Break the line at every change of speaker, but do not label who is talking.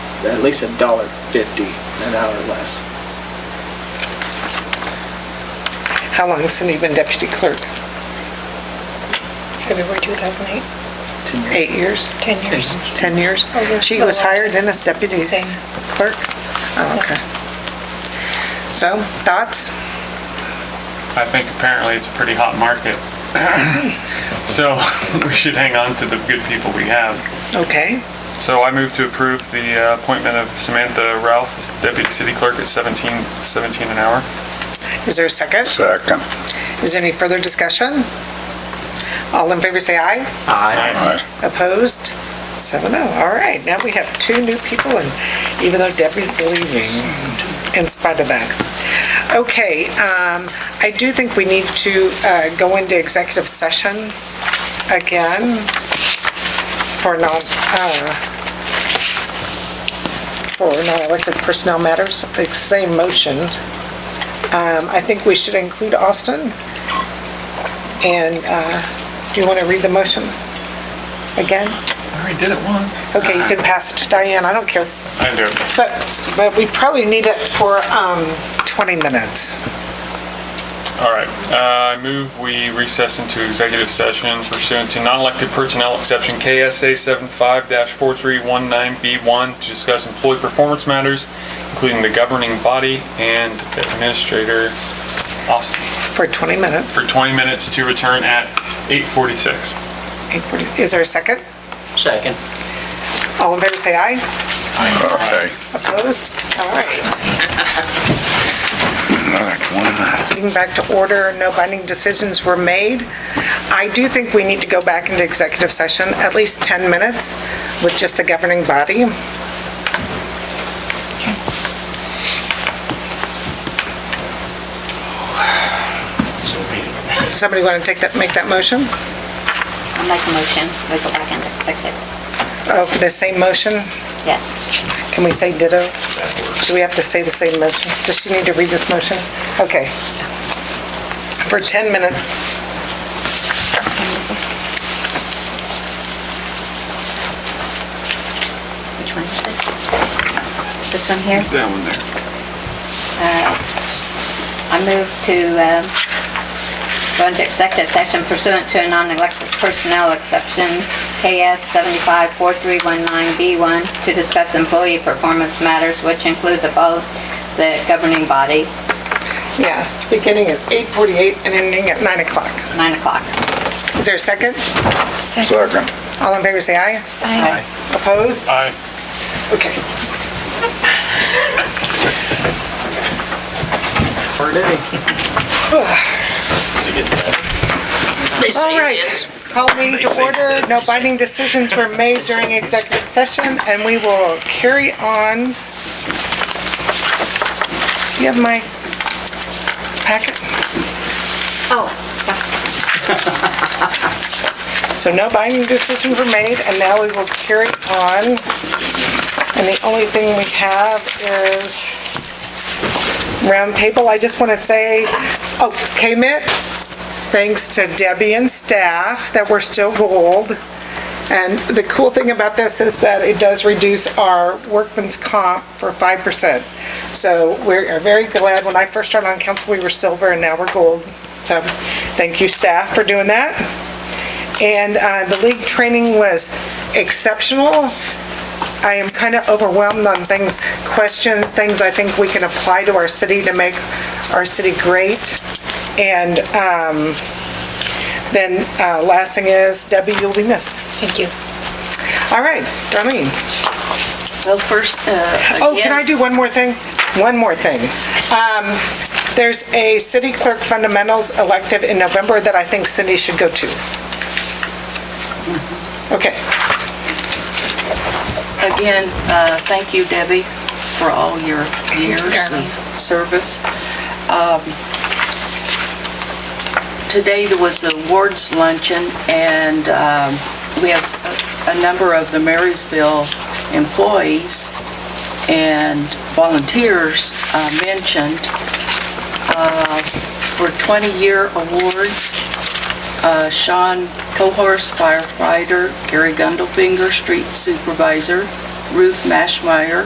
it's at least a dollar fifty an hour less.
How long has Cindy been deputy clerk?
February 2008,
Ten years.
Eight years?
10 years. Oh,
10 years?
Over.
She was hired then as deputy
Same.
clerk? Oh, okay. So, thoughts?
I think apparently it's a pretty hot market. So we should hang on to the good people we have.
Okay.
So I move to approve the uh, appointment of Samantha Ralph as deputy city clerk at 17, 17 an hour.
Is there a second?
Second.
Is there any further discussion? All in favor, say aye.
Aye.
Opposed? Seven oh. All right, now we have two new people, and even though Debbie's leaving, in spite of that. Okay, um, I do think we need to uh, go into executive session again for non, uh, for non-elected personnel matters, the same motion. Um, I think we should include Austin. And uh, do you want to read the motion again?
I already did it once.
Okay, you can pass it to Diane, I don't care.
I do.
But, but we probably need it for um, 20 minutes.
All right, Uh, I move we recess into executive session pursuant to non-elected personnel exception KSA 75-4319B1 to discuss employee performance matters, including the governing body and administrator Austin,
For 20 minutes.
for 20 minutes to return at 8:46.
Eight forty- Is there a second?
Second.
All in favor, say aye.
Aye.
Opposed? All right.
Another 20 minutes.
Getting back to order, no binding decisions were made. I do think we need to go back into executive session, at least 10 minutes, with just the governing body.
So be it.
Somebody want to take that, make that motion?
I'll make a motion, we go back into executive.
Oh, for the same motion?
Yes.
Can we say ditto? Do we have to say the same motion? Does she need to read this motion? Okay. For 10 minutes,
Which one is it? This one here?
That one there.
I move to um, go into executive session pursuant to a non-elected personnel exception, KS 754319B1, to discuss employee performance matters, which include the vote, the governing body,
yeah, beginning at 8:48 and ending at 9 o'clock.
9 o'clock.
Is there a second?
Second.
All in favor, say aye.
Aye.
Opposed?
Aye.
Okay.
Per day.
All right. Call meeting to order. No binding decisions were made during executive session, and we will carry on. You have my packet?
Oh,
So no binding decisions were made, and now we will carry on. And the only thing we have is roundtable. I just want to say, oh, KMIT, thanks to Debbie and staff that we're still gold. And the cool thing about this is that it does reduce our workman's comp for 5%. So we're very glad. When I first started on council, we were silver, and now we're gold. So thank you, staff, for doing that. And uh, the league training was exceptional. I am kind of overwhelmed on things, questions, things I think we can apply to our city to make our city great. And um, then uh, last thing is, Debbie, you'll be missed.
Thank you.
All right, Darlene.
Well, first, uh,
Oh, can I
again,
do one more thing? One more thing. Um, There's a city clerk fundamentals elective in November that I think Cindy should go to. Okay.
again, uh, thank you, Debbie, for all your years of service. Um, Today, there was the awards luncheon, and um, we have s- a number of the Marysville employees and volunteers uh, mentioned uh, for 20-year awards. uh, Sean Cohorst, firefighter, Gary Gundelfinger, street supervisor, Ruth Mashmeyer,